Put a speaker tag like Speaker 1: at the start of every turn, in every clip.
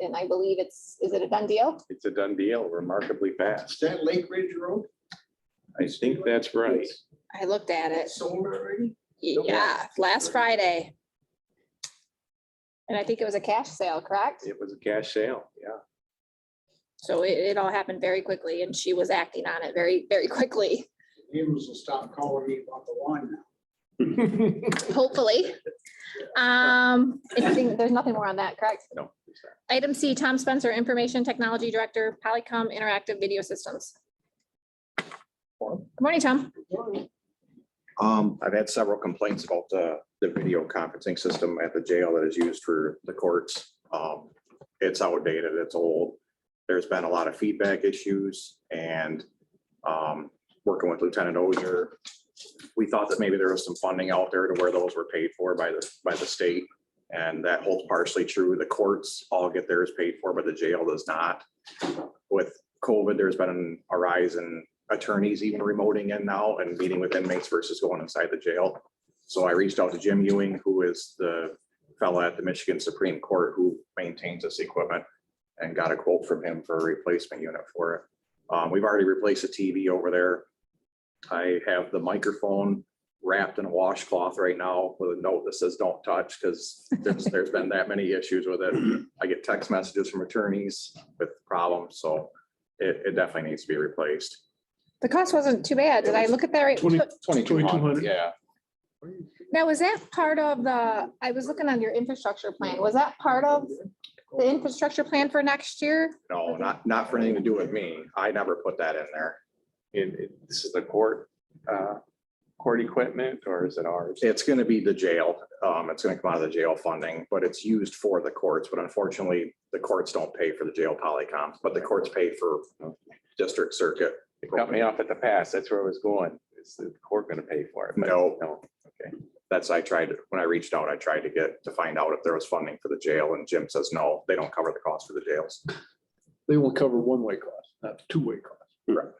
Speaker 1: and I believe it's, is it a done deal?
Speaker 2: It's a done deal remarkably
Speaker 3: Is
Speaker 2: fast.
Speaker 3: that Lake Ridge Road?
Speaker 2: I think that's right.
Speaker 1: I looked at it.
Speaker 3: That's sold already?
Speaker 1: Yeah, last Friday. And I think it was a cash sale, correct?
Speaker 2: It was a cash sale, yeah.
Speaker 1: So it, it all happened very quickly and she was acting on it very, very quickly,
Speaker 3: Neighbors will stop calling me about the lawn now.
Speaker 1: hopefully. Um, anything, there's nothing more on that, correct?
Speaker 2: No. it's not.
Speaker 1: Item C, Tom Spencer, Information Technology Director, Polycom Interactive Video Systems. Good morning, Tom.
Speaker 4: Um, I've had several complaints about the, the video conferencing system at the jail that is used for the courts. Um, it's outdated, it's old. There's been a lot of feedback issues and, um, working with Lieutenant Ozier, we thought that maybe there was some funding out there to where those were paid for by the, by the state. And that holds partially true. The courts all get theirs paid for, but the jail does not. With COVID, there's been a rise in attorneys even remoting in now and meeting with inmates versus going inside the jail. So I reached out to Jim Ewing, who is the fellow at the Michigan Supreme Court who maintains this equipment and got a quote from him for a replacement unit for it. Um, we've already replaced the TV over there. I have the microphone wrapped in a washcloth right now with a note that says, don't touch, because there's, there's been that many issues with it. I get text messages from attorneys with problems, so it, it definitely needs to be replaced.
Speaker 1: The cost wasn't too bad. Did I look at that right?
Speaker 5: Twenty,
Speaker 4: Twenty-two hundred,
Speaker 5: 2200.
Speaker 4: yeah.
Speaker 1: Now, was that part of the, I was looking on your infrastructure plan, was that part of the infrastructure plan for next year?
Speaker 4: No, not, not for anything to do with me. I never put that in there.
Speaker 2: And it- this is the court, uh, court equipment or is it ours?
Speaker 4: It's gonna be the jail. Um, it's gonna come out of the jail funding, but it's used for the courts. But unfortunately, the courts don't pay for the jail polycoms, but the courts pay for district circuit.
Speaker 2: It cut me off at the pass. That's where I was going. Is the court going to pay for it? But
Speaker 4: No.
Speaker 2: No.
Speaker 4: That's, I tried, when I reached out, I tried to get, to find out if there was funding for the jail and Jim says, no, they don't cover the cost for the jails.
Speaker 5: They will cover one-way costs, not two-way costs.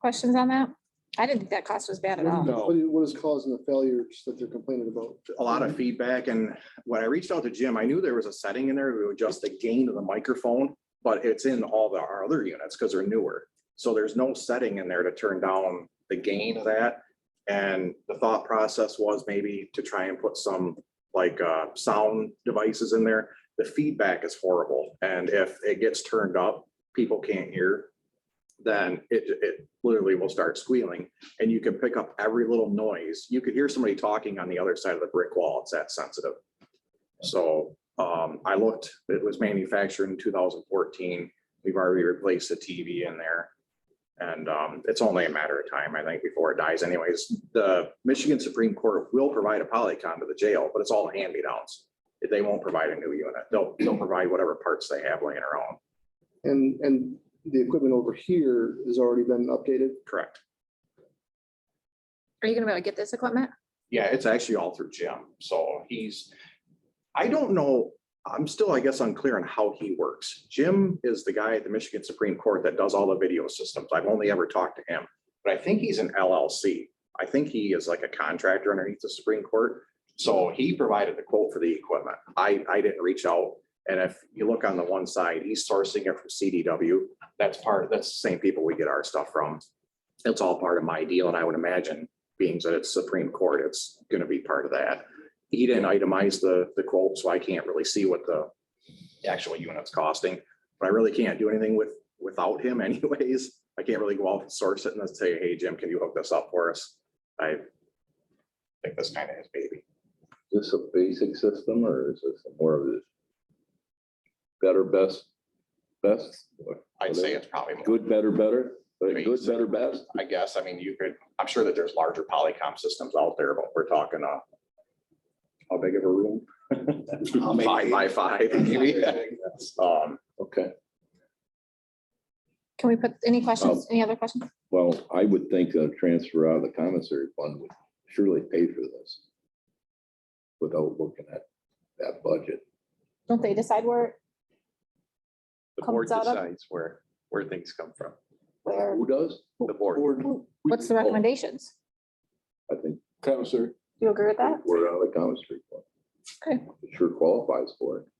Speaker 1: Questions on that? I didn't think that cost was bad at all.
Speaker 5: No.
Speaker 6: What is, what is causing the failures that they're complaining about?
Speaker 4: a lot of feedback and when I reached out to Jim, I knew there was a setting in there to adjust the gain of the microphone, but it's in all the our other units because they're newer. So there's no setting in there to turn down the gain of that. And the thought process was maybe to try and put some like uh sound devices in there. The feedback is horrible and if it gets turned up, people can't hear. Then it it literally will start squealing and you can pick up every little noise. You could hear somebody talking on the other side of the brick wall. It's that sensitive. So um, I looked, it was manufactured in two thousand fourteen. We've already replaced the TV in there. And um, it's only a matter of time, I think, before it dies anyways. The Michigan Supreme Court will provide a polycom to the jail, but it's all hand me downs. They won't provide a new unit. They'll, they'll provide whatever parts they have laying around.
Speaker 6: And, and the equipment over here has already been updated.
Speaker 4: Correct.
Speaker 1: Are you gonna be able to get this equipment?
Speaker 4: Yeah, it's actually all through Jim. So he's, I don't know, I'm still, I guess, unclear on how he works. Jim is the guy at the Michigan Supreme Court that does all the video systems. I've only ever talked to him. But I think he's an LLC. I think he is like a contractor underneath the Supreme Court. So he provided the quote for the equipment. I, I didn't reach out. And if you look on the one side, he's sourcing it from CDW. That's part, that's the same people we get our stuff from. It's all part of my deal. And I would imagine being that it's Supreme Court, it's gonna be part of that. He didn't itemize the, the quote, so I can't really see what the actual unit's costing. But I really can't do anything with, without him anyways. I can't really go out and source it and then say, hey, Jim, can you hook this up for us? I think that's kind of his baby.
Speaker 7: Is this a basic system or is this more of this? Better, best, best,
Speaker 4: I'd say it's probably more,
Speaker 7: good, better, better, but good, better, best?
Speaker 4: I guess. I mean, you could, I'm sure that there's larger Polycom systems out there, but we're talking uh how big of a room? Five by five, maybe. Um,
Speaker 7: Okay,
Speaker 1: Can we put, any questions, any other questions?
Speaker 7: well, I would think a transfer out of the commissary fund would surely pay for this. Without looking at that budget.
Speaker 1: Don't they decide where,
Speaker 2: The board
Speaker 1: Comes out of-
Speaker 2: decides where, where things come from.
Speaker 1: where,
Speaker 7: Who does?
Speaker 2: The board.
Speaker 1: what's the recommendations?
Speaker 7: Oh, I think
Speaker 5: Commissary.
Speaker 1: Do you agree with that?
Speaker 7: we're out of the commissary fund.
Speaker 1: Okay.
Speaker 7: It Sure qualifies for it.